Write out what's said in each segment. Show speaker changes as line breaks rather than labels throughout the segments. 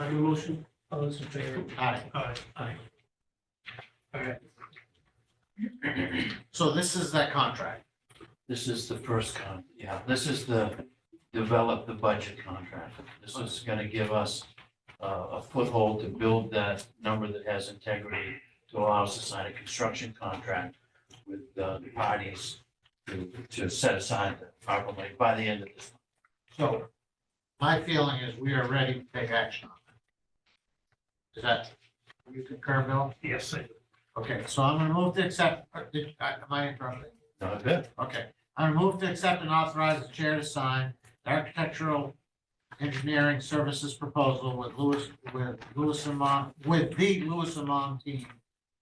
Any motion?
All those in favor?
Aye.
Aye.
Aye. All right,
So this is that contract.
This is the first con, yeah, this is the develop the budget contract. This is gonna give us uh, a foothold to build that number that has integrity to allow us to sign a construction contract with uh, the parties to, to set aside the ARPA money by the end of this.
So my feeling is we are ready to take action on it. Is that, you concur, Bill?
Yes, I-
Okay, so I'm gonna move to accept, uh, did- uh, am I interrupting?
Not good.
Okay, I'm gonna move to accept and authorize the chair to sign the architectural engineering services proposal with Lewis, with Lewis Amon, with the Lewis Amon team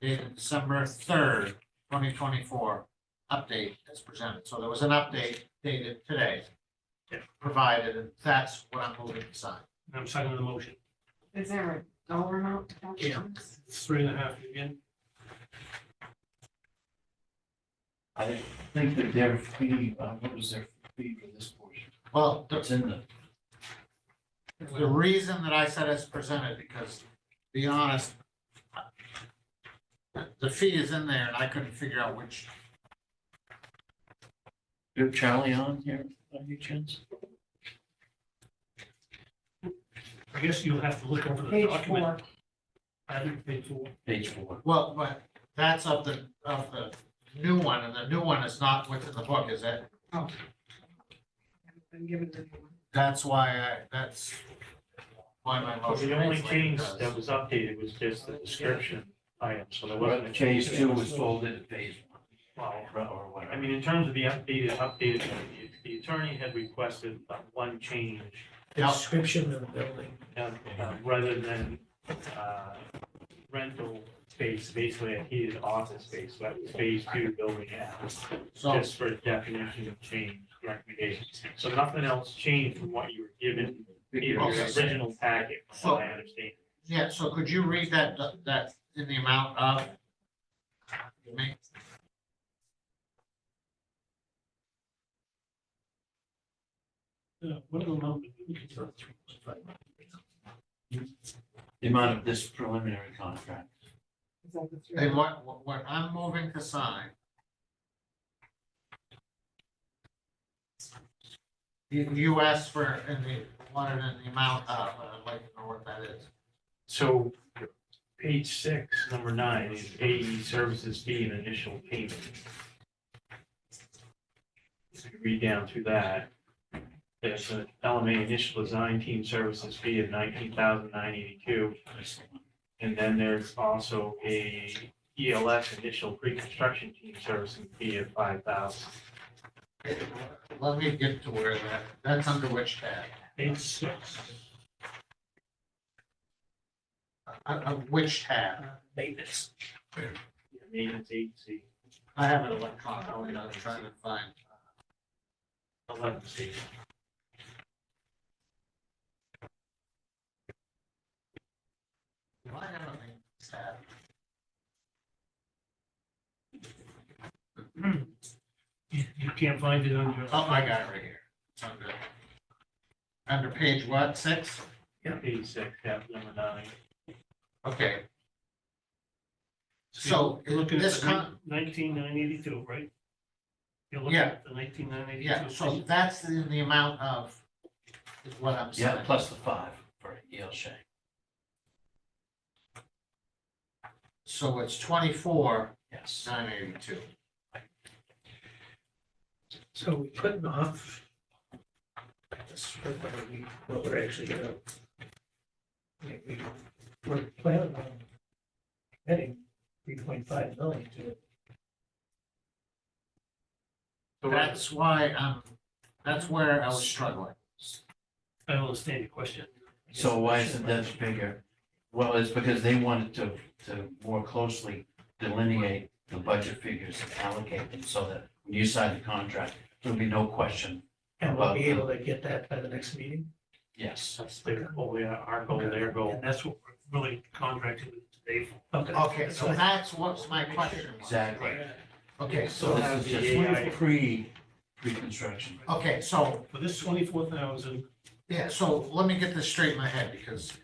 dated December third, twenty twenty-four, update as presented. So there was an update dated today.
Yeah.
Provided, and that's what I'm moving to sign.
I'm second the motion.
Is there a dollar amount? attached to
Yeah.
this?
Three and a half again.
I think that their fee, uh, what was their fee for this portion?
Well, the,
It's in the,
the reason that I said it's presented, because to be honest, the- the fee is in there and I couldn't figure out which
do you have Charlie on here, by any chance?
I guess you'll have to look over the
Page
document.
four.
I haven't paid for.
Page four.
Well, but that's of the, of the new one, and the new one is not what's in the book, is it?
Haven't Been given to anyone.
That's why I, that's why my motion.
The only
is like it
change
does.
that was updated was just the description item, so there wasn't. a change.
Page two was folded to page one.
Well,
or
I
whatever.
mean, in terms of the updated, updated, the- the attorney had requested uh, one change,
Yep,
description of the building.
uh, uh, rather than uh, rental space, basically a heated office space, so that was phase two building out.
so,
Just for definition of change recommendations, so nothing else changed from what you were given in your
Okay.
original packet, from what I understand.
yeah, so could you read that, that in the amount of? You may-
Yeah, What are the numbers? We can start three, five.
The amount of this preliminary contract.
Is that the three?
And what, what- what I'm moving to sign. You, you asked for, in the, wanted in the amount of, and I'd like to know what that is.
So page six, number nine, is AE services fee and initial payment. If you Read down through that. There's an LMA initial design team services fee of nineteen thousand nine eighty-two. And then there's also a ELS initial pre-construction team servicing fee of five thousand.
Let me get to where that, that's under which tab?
Page six.
Uh, uh, which tab?
uh, Maintenance.
Maintenance agency,
I have an electronic, copy that I'm trying to find. uh,
eleven C.
Do I have a maintenance tab?
You you can't find it on your.
Oh, I got it right here. It's under, under page what, six?
Page six, tab number nine.
Okay, so
You're looking at
this
the
con-
nineteen nine eighty-two, right? You're looking
Yeah.
at the nineteen nine eighty-two.
yeah, so that's in the amount of, is what I'm
Yeah,
saying.
plus the five for Yale Shank.
So it's twenty-four,
Yes.
nine eighty-two.
So we putting off this for what we, what we're actually gonna. we- we- We're planning on adding three point five million to it.
So
That's why I'm, that's where I was struggling.
I don't understand your question.
So why isn't that bigger? Well, it's because they wanted to, to more closely delineate the budget figures and allocate them so that when you sign the contract, there'll be no question.
And we'll be able to get that by the next meeting.
Yes.
That's their, oh, yeah, our goal, their goal.
And that's what we're really contracted with today for.
Okay.
Okay,
that's
so
fine.
that's what's my question was.
Exactly.
Okay, so,
So this is just pre, pre-construction.
okay, so
For this twenty-four thousand,
Yeah, so let me get this straight in my head, because